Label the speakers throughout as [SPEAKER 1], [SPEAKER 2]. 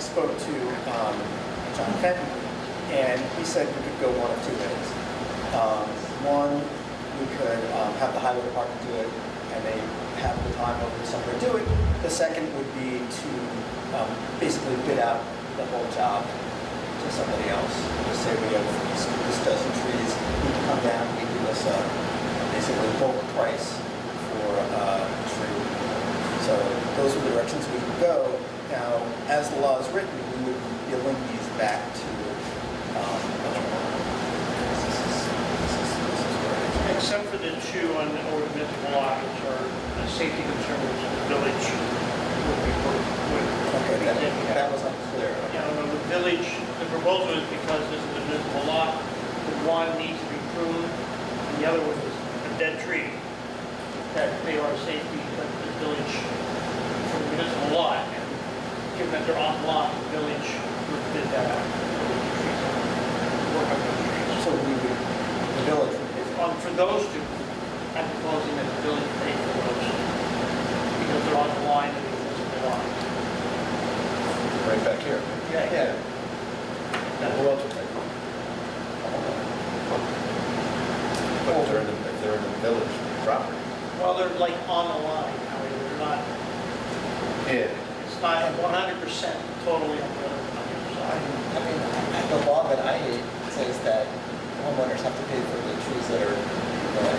[SPEAKER 1] spoke to um, John Fenton, and he said we could go one of two ways. Um, One, we could um, have the highway department do it, and they have the time over the summer to do it. The second would be to um, basically bid out the whole job to somebody else. Just say we have these this dozen trees, you can come down, we do this, uh, basically bulk price for uh, a tree. So those are the directions we can go. Now, as the law is written, we would be billing these back to, um, this is, this is, this is where it is.
[SPEAKER 2] Except for the two on the ordinance block, which are the safety concerns of the village. would be worked with.
[SPEAKER 1] Okay, that, that was unclear.
[SPEAKER 2] You know, the village, the proposal is because this is a municipal lot, the one needs to be pruned, and the other one is a dead tree. That they are safety, but the village, for the municipal lot, and given that they're on lot, the village would bid that out. Work on those trees.
[SPEAKER 1] So we would, the village would be
[SPEAKER 2] Um, for those two, I'm proposing that the village pay for those, because they're on the line and it's supposed to be on.
[SPEAKER 3] right back here.
[SPEAKER 1] Yeah.
[SPEAKER 3] Who else would take them? But if they're in the, if they're in the village property.
[SPEAKER 2] Well, they're like on the line, I mean, they're not,
[SPEAKER 3] Yeah.
[SPEAKER 2] it's not one hundred percent totally on the other, on the other
[SPEAKER 4] I
[SPEAKER 2] side.
[SPEAKER 4] mean, the law that I hate says that homeowners have to pay for the trees that are, that are,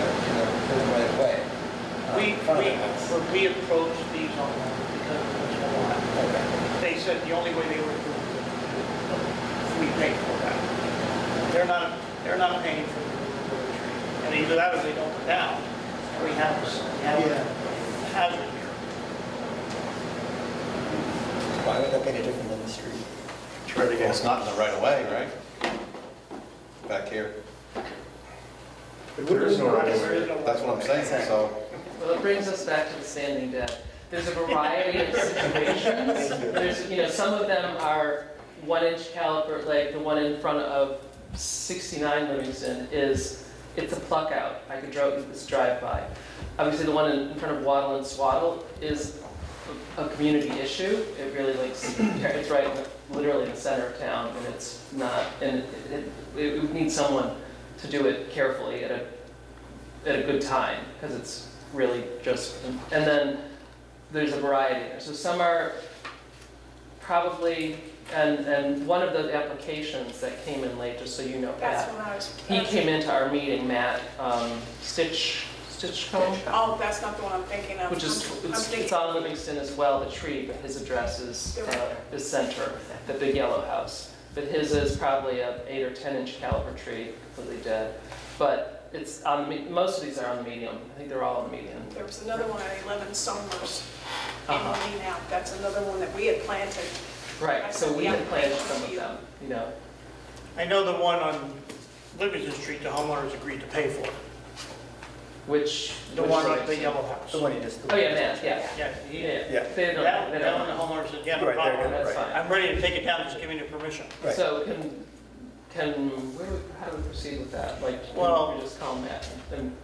[SPEAKER 4] that are, you know, proven right away. uh,
[SPEAKER 2] We,
[SPEAKER 4] in front of
[SPEAKER 2] we,
[SPEAKER 4] the house.
[SPEAKER 2] when we approached these on the line because of the municipal lot. They said the only way they were doing it if we pay for that. They're not, they're not paying for the removal of the tree. And either that or they don't come down, and we have, this- we have a hazard here.
[SPEAKER 4] Why would that be any different than the street?
[SPEAKER 3] Well, it's not in the right of way, right? Back here.
[SPEAKER 5] There is no right of
[SPEAKER 2] There
[SPEAKER 5] way.
[SPEAKER 2] is no
[SPEAKER 3] That's what I'm saying, so.
[SPEAKER 6] Well, it brings us back to the standing debt. There's a variety of situations. There's, you know, some of them are one-inch caliber, like the one in front of 69 Livingston is, it's a pluck out. I could drive, this drive-by. Obviously, the one in in front of Waddle and Swaddle is a a community issue. It really like, it's right in the- literally in the center of town, and it's not, and it- it, it would need someone to do it carefully at a, at a good time, because it's really just, and then there's a variety there. So some are probably, and, and one of the applications that came in late, just so you know,
[SPEAKER 7] That's
[SPEAKER 6] Pat,
[SPEAKER 7] what I was.
[SPEAKER 6] he came into our meeting, Matt, um, Stitch, Stitchcomb?
[SPEAKER 7] Oh, that's not the one I'm thinking of.
[SPEAKER 6] Which is,
[SPEAKER 7] I'm- I'm
[SPEAKER 6] it's it's
[SPEAKER 7] thinking-
[SPEAKER 6] on Livingston as well, the tree, but his address is, uh, is center, the big yellow house. But his is probably a eight or 10 inch caliber tree, completely dead. But it's on, the me- most of these are on the medium, I think they're all on the medium.
[SPEAKER 7] There was another one at 11 Summers in
[SPEAKER 6] Uh-huh.
[SPEAKER 7] Lee now. That's another one that we had planted.
[SPEAKER 6] Right, so we had planted some of them, you know.
[SPEAKER 2] I know the one on Livingston Street, the homeowners agreed to pay for.
[SPEAKER 6] Which.
[SPEAKER 2] The
[SPEAKER 6] which
[SPEAKER 2] one
[SPEAKER 6] ones?
[SPEAKER 2] at the yellow house.
[SPEAKER 1] The one you just.
[SPEAKER 6] Oh, yeah, Matt, yeah.
[SPEAKER 2] Yeah, he-
[SPEAKER 6] Yeah,
[SPEAKER 1] Yeah.
[SPEAKER 6] they don't,
[SPEAKER 2] that
[SPEAKER 6] they
[SPEAKER 2] one, that one,
[SPEAKER 6] don't.
[SPEAKER 2] the homeowners said, yeah, no
[SPEAKER 1] Right, they're
[SPEAKER 2] problem.
[SPEAKER 1] gonna-
[SPEAKER 6] Oh, That's
[SPEAKER 1] Right.
[SPEAKER 6] fine.
[SPEAKER 2] I'm ready to take it down, just give me the permission.
[SPEAKER 1] Right.
[SPEAKER 6] So can, can, where do we, how do we proceed with that? Like,
[SPEAKER 2] Well-
[SPEAKER 6] can we just call Matt and-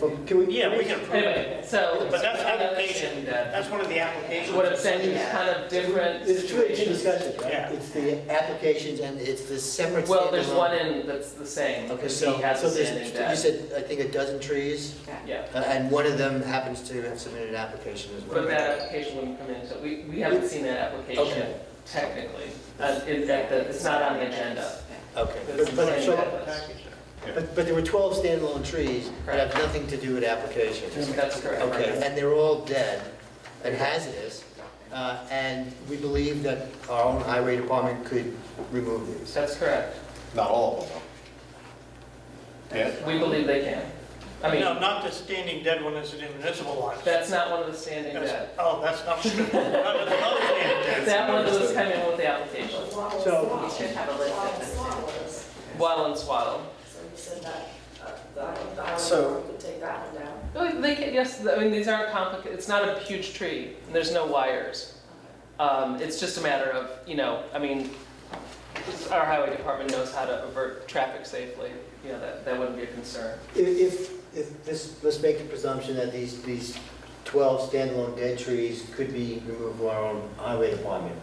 [SPEAKER 5] Well,
[SPEAKER 6] and?
[SPEAKER 5] Can we?
[SPEAKER 2] Yeah, we can approve it.
[SPEAKER 6] Anyway, so.
[SPEAKER 2] But that's
[SPEAKER 6] another
[SPEAKER 2] application,
[SPEAKER 6] thing that-
[SPEAKER 2] that's one of the applications.
[SPEAKER 6] What I'm saying is kind of different.
[SPEAKER 5] There's two agent
[SPEAKER 6] situations.
[SPEAKER 5] discussions,
[SPEAKER 2] Yeah.
[SPEAKER 5] right?
[SPEAKER 4] It's the applications and it's the separate.
[SPEAKER 6] Well, there's
[SPEAKER 4] standalone-
[SPEAKER 6] one in that's the same,
[SPEAKER 4] Okay,
[SPEAKER 6] because
[SPEAKER 4] so,
[SPEAKER 6] he has
[SPEAKER 4] so
[SPEAKER 6] a
[SPEAKER 4] there's,
[SPEAKER 6] standing
[SPEAKER 4] you
[SPEAKER 6] debt.
[SPEAKER 4] said, I think a dozen trees,
[SPEAKER 6] Yeah,
[SPEAKER 4] uh, and one of them happens to have submitted an application as well.
[SPEAKER 6] but that application wouldn't come in, so we, we haven't seen that application
[SPEAKER 4] Okay.
[SPEAKER 6] technically. Uh, in fact, that it's not on the agenda.
[SPEAKER 4] Okay,
[SPEAKER 6] But it's the
[SPEAKER 4] but, but,
[SPEAKER 6] same
[SPEAKER 4] so,
[SPEAKER 6] debt.
[SPEAKER 4] but, but there were twelve standalone trees that have nothing to do with applications.
[SPEAKER 6] That's correct.
[SPEAKER 4] Okay, and they're all dead and hazardous, uh, and we believe that our own highway department could remove these.
[SPEAKER 6] That's correct.
[SPEAKER 3] Not all of them, though. Yeah?
[SPEAKER 6] We believe they can. I mean,
[SPEAKER 2] No, not the standing dead one, it's an municipal lot.
[SPEAKER 6] that's not one of the standing debt.
[SPEAKER 2] That's- Oh, that's not, no, that's another standing dead.
[SPEAKER 6] That one was coming in with the application.
[SPEAKER 5] So,
[SPEAKER 6] We should have a list of them. Waddle and swaddle. uh,
[SPEAKER 1] So-
[SPEAKER 6] Well, Oh, They can, yes, I mean, these aren't complicated, it's not a huge tree, and there's no wires. Um, it's just a matter of, you know, I mean, our highway department knows how to avert traffic safely, you know, that, that wouldn't be a concern.
[SPEAKER 4] If, if, if this, let's make the presumption that these, these 12 standalone dead trees could be removed by our own highway department.